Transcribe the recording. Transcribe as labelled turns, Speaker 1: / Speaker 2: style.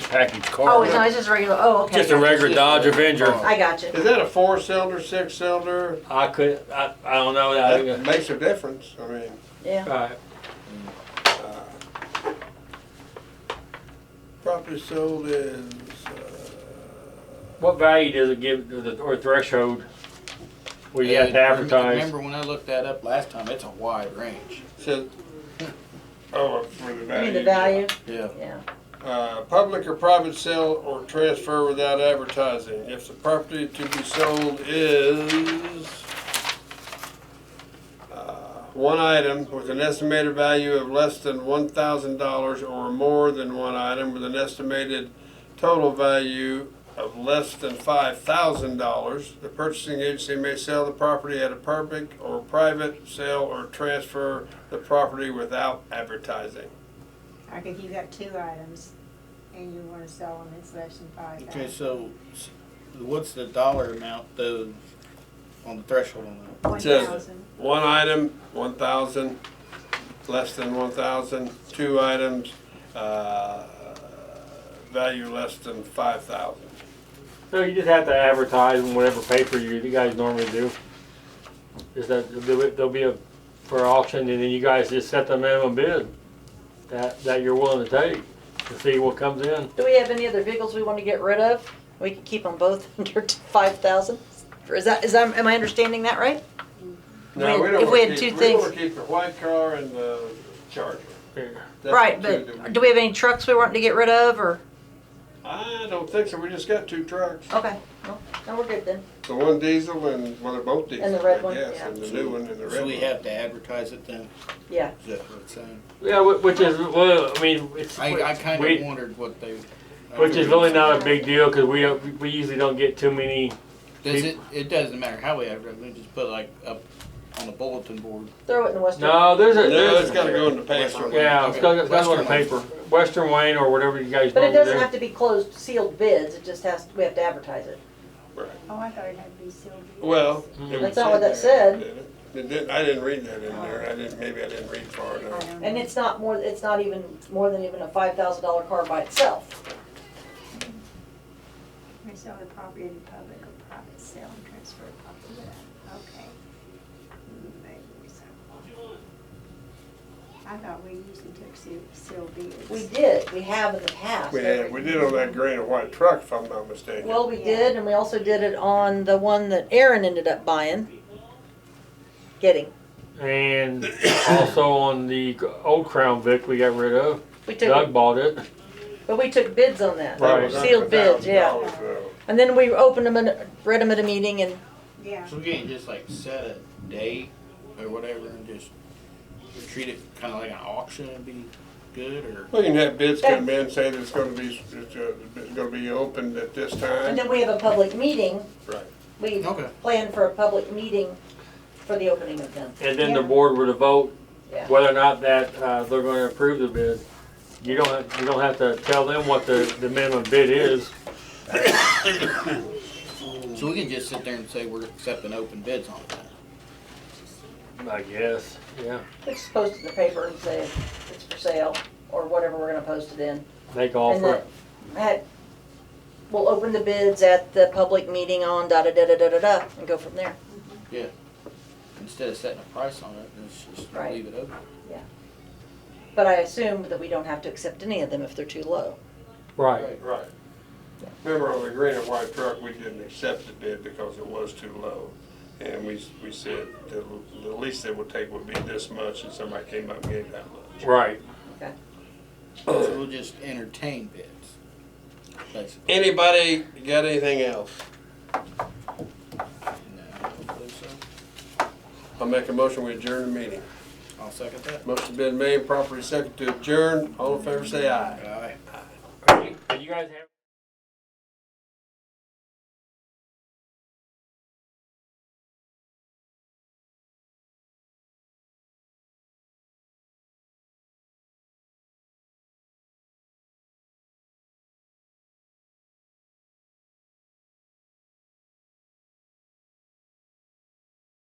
Speaker 1: package
Speaker 2: Oh,
Speaker 1: car.
Speaker 2: it's not, it's just regular, oh, okay.
Speaker 1: Just a regular Dodge Avenger.
Speaker 2: I got you.
Speaker 3: Is that a four cylinder, six cylinder?
Speaker 1: I could, I, I don't know. I
Speaker 3: That
Speaker 1: think-
Speaker 3: makes a difference, I mean,
Speaker 2: Yeah.
Speaker 1: Right.
Speaker 3: uh, property sold is, uh,
Speaker 1: What value does it give, to the- or threshold? where you have to
Speaker 4: Yeah,
Speaker 1: advertise.
Speaker 4: Remember when I looked that up last time, it's a wide range.
Speaker 3: says, oh, for the
Speaker 2: You mean
Speaker 3: value.
Speaker 2: the value?
Speaker 4: Yeah.
Speaker 2: Yeah.
Speaker 3: Uh, public or private sale or transfer without advertising. If the property to be sold is uh, one item with an estimated value of less than one thousand dollars or more than one item with an estimated total value of less than five thousand dollars, the purchasing agency may sell the property at a public or private sale or transfer the property without advertising.
Speaker 5: Like if you got two items and you wanna sell them, it's less than five
Speaker 4: Okay,
Speaker 5: thousand.
Speaker 4: so s- what's the dollar amount though on the threshold on that?
Speaker 5: One
Speaker 3: Says-
Speaker 5: thousand,
Speaker 3: One item, one thousand, less than one thousand, two items, uh, value less than five thousand.
Speaker 1: So you just have to advertise in whatever paper you, you guys normally do. Is that, there'll be- there'll be a, for auction and then you guys just set the minimum bid that, that you're willing to take to see what comes in.
Speaker 2: Do we have any other vehicles we want to get rid of? We can keep them both under five thousand? Is that, is that, am I understanding that right?
Speaker 3: No, we don't
Speaker 2: If we
Speaker 3: wanna
Speaker 2: had
Speaker 3: keep-
Speaker 2: two
Speaker 3: We wanna keep the white car and the Charger. That's the
Speaker 2: Right,
Speaker 3: two that
Speaker 2: but do we have any trucks we want to get rid of or?
Speaker 3: I don't think so, we just got two trucks,
Speaker 2: Okay, well, then we're good then.
Speaker 3: the one diesel and, well, they're both diesel,
Speaker 2: And the
Speaker 3: I
Speaker 2: red one,
Speaker 3: guess,
Speaker 2: yeah.
Speaker 3: and the new one and the red one.
Speaker 4: So we have to advertise it then?
Speaker 2: Yeah.
Speaker 4: Is that what it's saying?
Speaker 1: Yeah, wh- which is, well, I mean, it's.
Speaker 4: I, I kind
Speaker 1: we-
Speaker 4: of wondered what they.
Speaker 1: Which is really not a big deal, cause we, we usually don't get too many,
Speaker 4: Does it, it doesn't matter how we advertise, we just put like up on the bulletin board.
Speaker 2: Throw it in the western.
Speaker 1: no, there's a,
Speaker 3: No, it's
Speaker 1: there's,
Speaker 3: gotta go in the paper.
Speaker 1: yeah, it's got, it's got on the
Speaker 4: Western
Speaker 1: paper, Western Wayne or whatever you guys
Speaker 2: But it
Speaker 1: normally
Speaker 2: doesn't
Speaker 1: do.
Speaker 2: have to be closed, sealed bids, it just has, we have to advertise it.
Speaker 5: oh, I thought it had to be sealed. deals.
Speaker 3: Well. it
Speaker 1: Mhm.
Speaker 3: was
Speaker 2: That's not what that
Speaker 3: there,
Speaker 2: said.
Speaker 3: didn't it? It didn't- I didn't read that in there, I didn't, maybe I didn't read far
Speaker 5: I
Speaker 3: enough.
Speaker 5: don't
Speaker 2: And
Speaker 5: know.
Speaker 2: it's not more, it's not even, more than even a five thousand dollar car by itself.
Speaker 5: May sell the property in public or private sale and transfer the property without, okay. Maybe we sell. I thought we usually took seal, sealed deals.
Speaker 2: We did, we have in the past.
Speaker 3: We had, we did on that gray and white truck, if I'm not mistaken.
Speaker 2: Well, we did, and we also did it on the one that Aaron ended up buying. Getting.
Speaker 1: And also on the old Crown Vic we got rid of,
Speaker 2: We took,
Speaker 1: Doug bought it.
Speaker 2: but we took bids on that.
Speaker 1: Right.
Speaker 2: Sealed bids, yeah.
Speaker 3: $100,000 though.
Speaker 2: And then we opened them and read them at a meeting and,
Speaker 5: Yeah,
Speaker 4: So we can't just like set a date or whatever and just treat it kind of like an auction and be good or?
Speaker 3: Well, you can have bids come in, say that it's gonna be, it's, uh, it's gonna be opened at this
Speaker 2: and
Speaker 3: time.
Speaker 2: then we have a public meeting.
Speaker 3: Right.
Speaker 2: We
Speaker 4: Okay.
Speaker 2: plan for a public meeting for the opening of them.
Speaker 1: And then the
Speaker 5: Yeah.
Speaker 1: board were to vote
Speaker 2: Yeah.
Speaker 1: whether or not that, uh, they're gonna approve the bid. You don't, have- you don't have to tell them what the, the minimum bid is.
Speaker 4: So we can just sit there and say we're accepting open bids on that.
Speaker 1: I guess, yeah.
Speaker 2: We just post it in the paper and say it's for sale or whatever we're gonna post it in.
Speaker 1: Make
Speaker 2: And
Speaker 1: offer.
Speaker 2: that, that- we'll open the bids at the public meeting on da da da da da da da and go from there.
Speaker 4: Instead of setting a price on it, let's just
Speaker 2: Right.
Speaker 4: leave it open.
Speaker 2: But I assume that we don't have to accept any of them if they're too low.
Speaker 1: Right.
Speaker 3: Right. Remember on the gray and white truck, we didn't accept the bid because it was too low. And we, we said the, the least they would take would be this much, and somebody came up and gave that much.
Speaker 1: Right.
Speaker 4: So we'll just entertain bids, basically.
Speaker 3: Anybody got anything else?
Speaker 4: No, I don't believe so.
Speaker 3: I'll make a motion, we adjourn the meeting.
Speaker 4: I'll second that.
Speaker 3: Motion's been made, properly second to adjourn, all in favor say aye.
Speaker 4: Aye.
Speaker 1: Are you- are you guys have-